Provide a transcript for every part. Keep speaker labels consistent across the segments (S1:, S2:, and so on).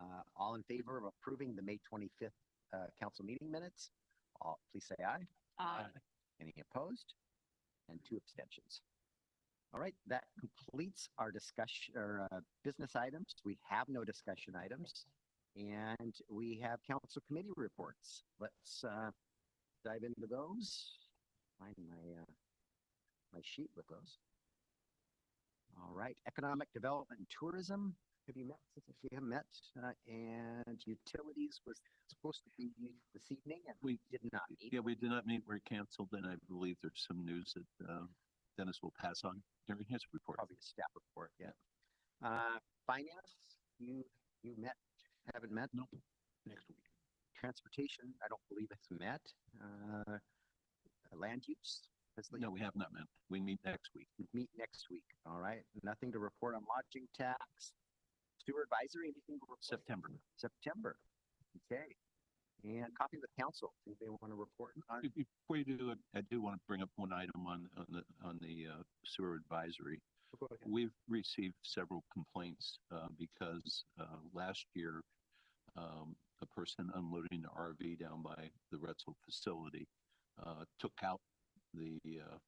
S1: Uh, All in favor of approving the May twenty-fifth, uh, council meeting minutes? All, please say aye.
S2: Aye.
S1: Any opposed? And two abstentions. All right, that completes our discussion, or, uh, business items. We have no discussion items. And we have council committee reports. Let's, uh, dive into those. Find my, uh, my sheet with those. All right, economic development and tourism. Have you met, if you have met, uh, and utilities was supposed to be this evening and we did not meet.
S3: Yeah, we did not meet. We're canceled, and I believe there's some news that uh, Dennis will pass on during his report.
S1: probably a staff report, yeah. Uh, finance, you, you met, haven't met? Nope.
S3: Next week.
S1: Transportation, I don't believe it's met. Uh, land use, has the,
S3: No, we have not met. We meet next week.
S1: meet next week, all right? Nothing to report on lodging tax. Sewer advisory, anything to report?
S3: September.
S1: September, okay. And copy with council, if they want to report on,
S3: Be- Before you do it, I do want to bring up one item on, on the, on the uh, sewer advisory.
S1: Go ahead.
S3: We've received several complaints uh, because uh, last year, um, a person unloading the RV down by the Retzel facility uh, took out the, uh,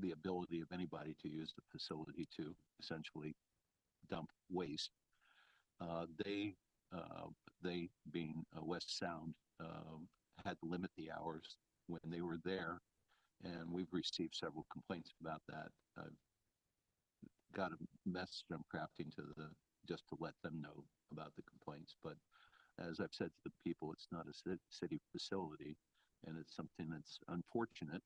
S3: the ability of anybody to use the facility to essentially dump waste. Uh, They, uh, they being uh, West Sound, um, had to limit the hours when they were there. And we've received several complaints about that. I've got a message I'm crafting to the, just to let them know about the complaints, but as I've said to the people, it's not a ci- city facility, and it's something that's unfortunate,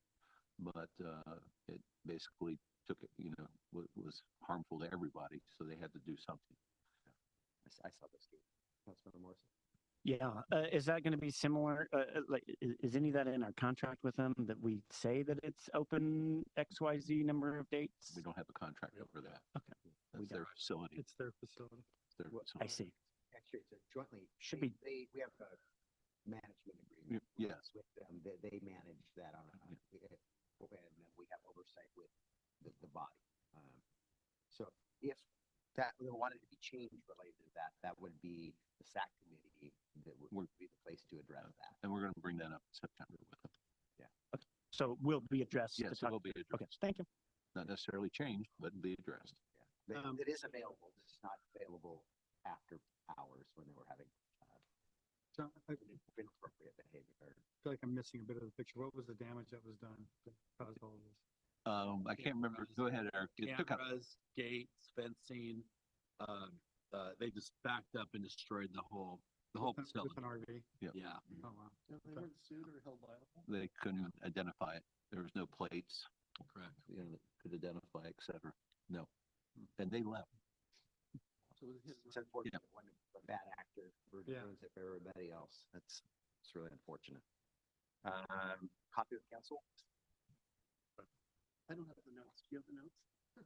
S3: but, uh, it basically took, it, you know, was, was harmful to everybody, so they had to do something.
S1: I s- I saw this, too. Councilmember Morrison.
S4: Yeah, uh, is that going to be similar? Uh, uh, like, is, is any of that in our contract with them that we say that it's open X Y Z number of dates?
S3: We don't have a contract over that.
S4: Okay. We
S3: That's their
S4: don't.
S3: facility.
S5: It's their facility.
S3: their
S1: what-
S4: I
S3: facility.
S4: see.
S1: Actually, it's a jointly.
S4: Should
S1: they-
S4: be-
S1: They, we have a management agreement.
S3: Y-
S1: with- With them, they, they manage that on, a- on a- uh, and then we have oversight with the, the body. Um, So if that we wanted to be changed related to that, that would be the SAC committee that would
S3: Would-
S1: would be the place to address that.
S3: And we're gonna bring that up in September with them.
S4: So it will be addressed.
S3: Yes,
S4: to
S3: it
S4: talk-
S3: will be
S4: Okay,
S3: addressed.
S4: thank you.
S3: Not necessarily changed, but be addressed.
S1: That,
S5: Um,
S1: that is available, it's just not available after hours when they were having
S5: So I feel
S1: inappropriate behavior.
S5: like I'm missing a bit of the picture. What was the damage that was done that caused all of this?
S3: Um, I can't remember. Go ahead, Eric. It took out
S6: Cameras, gates, fencing, um, uh, they just backed up and destroyed the whole, the whole
S5: With an-
S6: facility,
S5: With an RV?
S6: yeah.
S5: Oh, wow.
S7: They
S5: Okay.
S7: weren't sued or held liable?
S3: they couldn't even identify it. There was no plates,
S6: Correct.
S3: you know, that could identify, et cetera. No. And they left.
S7: So was his
S1: It's unfortunate when a bad actor ru-
S5: Yeah.
S1: ruins it for everybody else. That's, it's really unfortunate. Um, copy of council?
S7: I don't have the notes. Do you have the notes?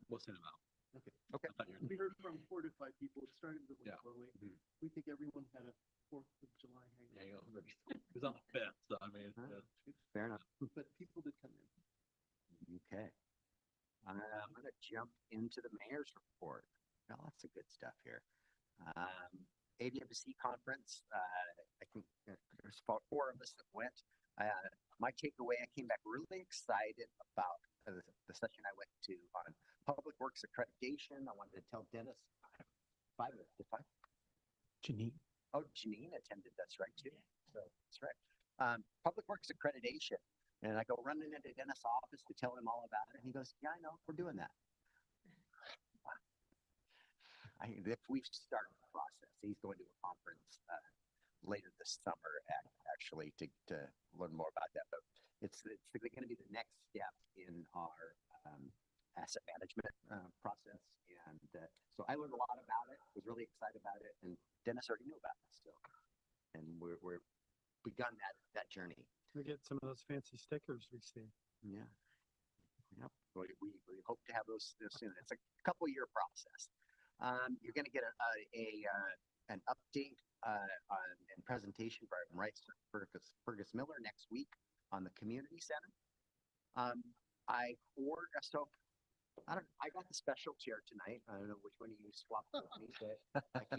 S6: What's it about?
S7: Okay.
S1: Okay.
S6: I thought you were-
S7: We heard from four to five people. It started really
S6: Yeah.
S7: slowly.
S5: Mm-hmm.
S1: Mhm.
S7: We think everyone had a Fourth of July
S6: Yeah,
S7: hangover,
S6: you go. It was on the fence, so I mean, it's,
S3: Mm-hmm.
S1: Huh?
S6: uh,
S1: Fair enough.
S7: but people did come in.
S1: Okay. Uh, I'm gonna jump into the mayor's report. Got Lots of good stuff here. Um, ABMC conference, uh, I think uh, there's about four of us that went. Uh, my takeaway, I came back really excited about uh, the, the session I went to on public works accreditation. I wanted to tell Dennis. Five, did five,
S4: Janine.
S1: Oh, Janine attended, that's right, too. So, that's right. Um, Public Works Accreditation. And I go running into Dennis' office to tell him all about it. And he goes, yeah, I know, we're doing that. I, if we start the process, he's going to a conference, uh, later this summer, ac- actually, to, to learn more about that. But it's, it's gonna be the next step in our, um, asset management, uh, process. And, uh, so I learned a lot about it, was really excited about it. And Dennis already knew about it still. And we're, we're begun that, that journey.
S5: We get some of those fancy stickers we see.
S1: Yeah. Yep. We, we, we hope to have those uh, soon. It's a couple year process. Um, you're gonna get a, a, a, uh, an update, uh, on, and presentation from Rice Fergus, Fergus Miller next week on the community center. Um, I ordered, so, I don't, I got the special chair tonight. I don't know which one you swapped with me, but I keep